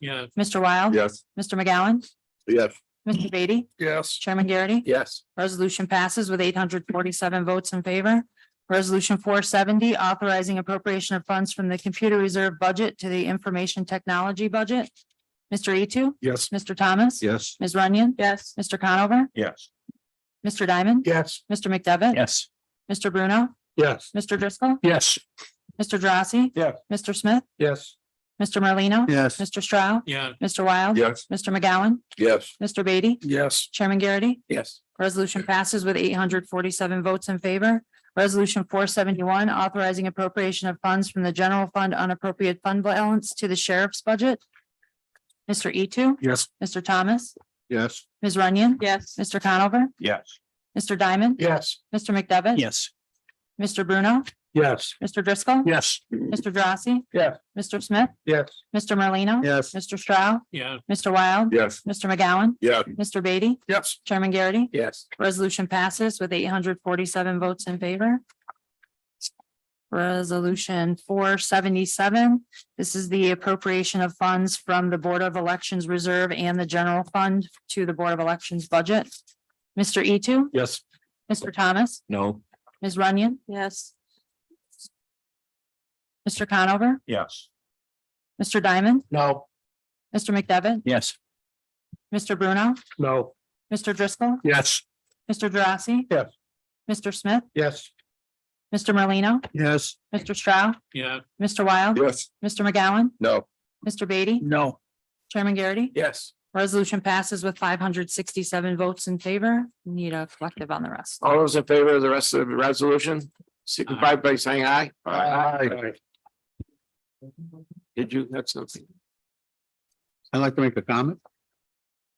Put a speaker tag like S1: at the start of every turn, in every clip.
S1: Yes.
S2: Mr. Wild.
S3: Yes.
S2: Mr. McGowan,
S3: Yes.
S2: Mr. Beatty,
S1: Yes.
S2: Chairman Garrity.
S3: Yes.
S2: Resolution passes with eight hundred forty-seven votes in favor. Resolution four seventy, authorizing appropriation of funds from the computer reserve budget to the information technology budget. Mr. Etu,
S3: Yes.
S2: Mr. Thomas.
S3: Yes.
S2: Ms. Runyon. Yes. Mr. Conover,
S3: Yes.
S2: Mr. Diamond.
S3: Yes.
S2: Mr. McDevitt.
S3: Yes.
S2: Mr. Bruno,
S3: Yes.
S2: Mr. Driscoll,
S3: Yes.
S2: Mr. Drossy.
S3: Yes.
S2: Mr. Smith,
S3: Yes.
S2: Mr. Merlino.
S3: Yes.
S2: Mr. Stroud,
S1: Yeah.
S2: Mr. Wild.
S3: Yes.
S2: Mr. McGowan,
S3: Yes.
S2: Mr. Beatty,
S3: Yes.
S2: Chairman Garrity.
S3: Yes.
S2: Resolution passes with eight hundred forty-seven votes in favor. Resolution four seventy-one, authorizing appropriation of funds from the general fund unappropriated fund balance to the sheriff's budget. Mr. Etu,
S3: Yes.
S2: Mr. Thomas,
S3: Yes.
S2: Ms. Runyon.
S4: Yes.
S2: Mr. Conover,
S3: Yes.
S2: Mr. Diamond.
S3: Yes.
S2: Mr. McDevitt.
S3: Yes.
S2: Mr. Bruno,
S3: Yes.
S2: Mr. Driscoll.
S3: Yes.
S2: Mr. Drossy.
S3: Yes.
S2: Mr. Smith,
S3: Yes.
S2: Mr. Merlino.
S3: Yes.
S2: Mr. Stroud,
S1: Yeah.
S2: Mr. Wild.
S3: Yes.
S2: Mr. McGowan,
S3: Yes.
S2: Mr. Beatty,
S3: Yes.
S2: Chairman Garrity.
S3: Yes.
S2: Resolution passes with eight hundred forty-seven votes in favor. Resolution four seventy-seven. This is the appropriation of funds from the Board of Elections Reserve and the General Fund to the Board of Elections Budget. Mr. Etu,
S3: Yes.
S2: Mr. Thomas,
S3: No.
S2: Ms. Runyon,
S4: Yes.
S2: Mr. Conover,
S3: Yes.
S2: Mr. Diamond,
S3: No.
S2: Mr. McDevitt,
S3: Yes.
S2: Mr. Bruno,
S3: No.
S2: Mr. Driscoll,
S3: Yes.
S2: Mr. Drossy.
S3: Yes.
S2: Mr. Smith,
S3: Yes.
S2: Mr. Merlino,
S3: Yes.
S2: Mr. Stroud,
S1: Yeah.
S2: Mr. Wild,
S3: Yes.
S2: Mr. McGowan,
S3: No.
S2: Mr. Beatty,
S3: No.
S2: Chairman Garrity.
S3: Yes.
S2: Resolution passes with five hundred sixty-seven votes in favor. Need a collective on the rest.
S5: All those in favor of the rest of the resolution, signify by saying aye.
S3: Aye.
S5: Did you, that's something,
S6: I'd like to make a comment.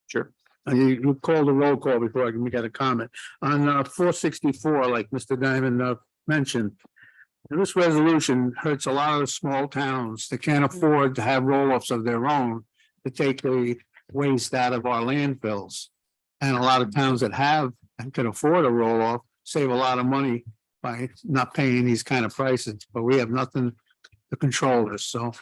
S5: sure.
S6: Uh, You you call the roll call before I can make a comment. On uh, four sixty-four, like Mr. Diamond uh, mentioned, this resolution hurts a lot of the small towns that can't afford to have roll-offs of their own to take the waste out of our landfills. And a lot of towns that have and can afford a roll-off save a lot of money by not paying these kind of prices, but we have nothing to control this, so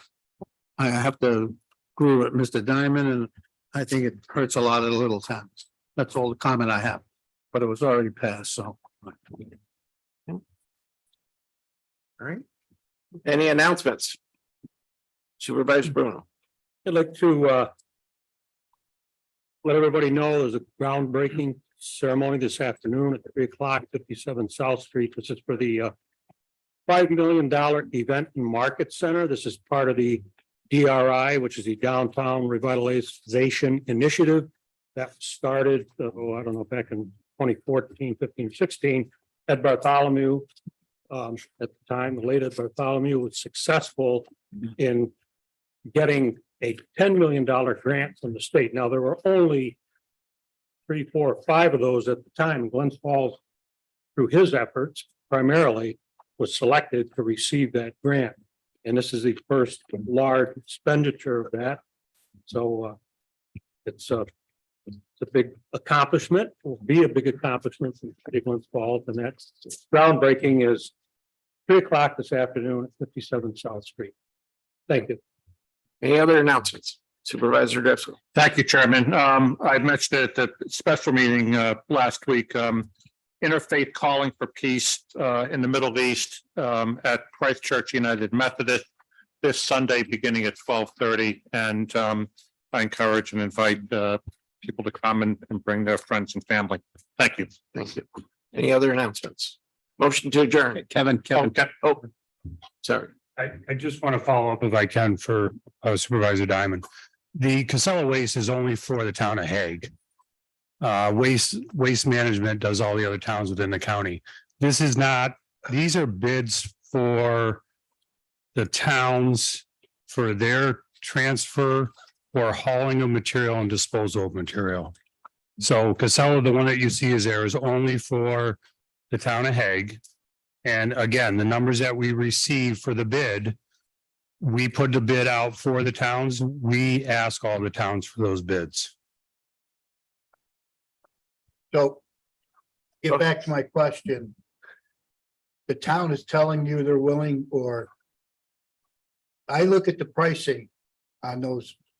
S6: I I have to agree with Mr. Diamond and I think it hurts a lot of the little towns. That's all the comment I have, but it was already passed, so.
S5: Any announcements? Supervisor Bruno,
S6: I'd like to uh. Let everybody know there's a groundbreaking ceremony this afternoon at three o'clock, fifty-seven South Street. This is for the uh. Five million dollar event and market center. This is part of the DRI, which is the Downtown Revitalization Initiative. That started, oh, I don't know, back in 2014, 15, 16. Ed Bartholomew. Um, at the time, the late Ed Bartholomew was successful in getting a ten million dollar grant from the state. Now, there were only three, four, or five of those at the time. Glens Falls, through his efforts primarily, was selected to receive that grant. And this is the first large expenditure of that. So uh, it's a, it's a big accomplishment, will be a big accomplishment for the city of Glens Falls, and that's groundbreaking is three o'clock this afternoon at fifty-seven South Street. Thank you.
S5: any other announcements? Supervisor Driscoll,
S7: Thank you, Chairman. Um, I mentioned it at the special meeting, uh, last week, um, Interfaith Calling for Peace, uh, in the Middle East, um, at Christ Church United Methodist this Sunday, beginning at twelve thirty, and, um, I encourage and invite, uh, people to come and, and bring their friends and family. Thank you.
S5: thank you. Any other announcements? Motion to adjourn,
S6: Kevin, Kevin.
S7: Okay.
S5: oh, sorry.
S7: I, I just want to follow up if I can for uh, Supervisor Diamond. The Casella waste is only for the town of Hague. Uh, waste, waste management does all the other towns within the county. This is not, these are bids for the towns for their transfer or hauling of material and disposal of material. So Casella, the one that you see is there is only for the town of Hague. And again, the numbers that we receive for the bid, we put the bid out for the towns. We ask all the towns for those bids.
S8: So get back to my question. The town is telling you they're willing or I look at the pricing on those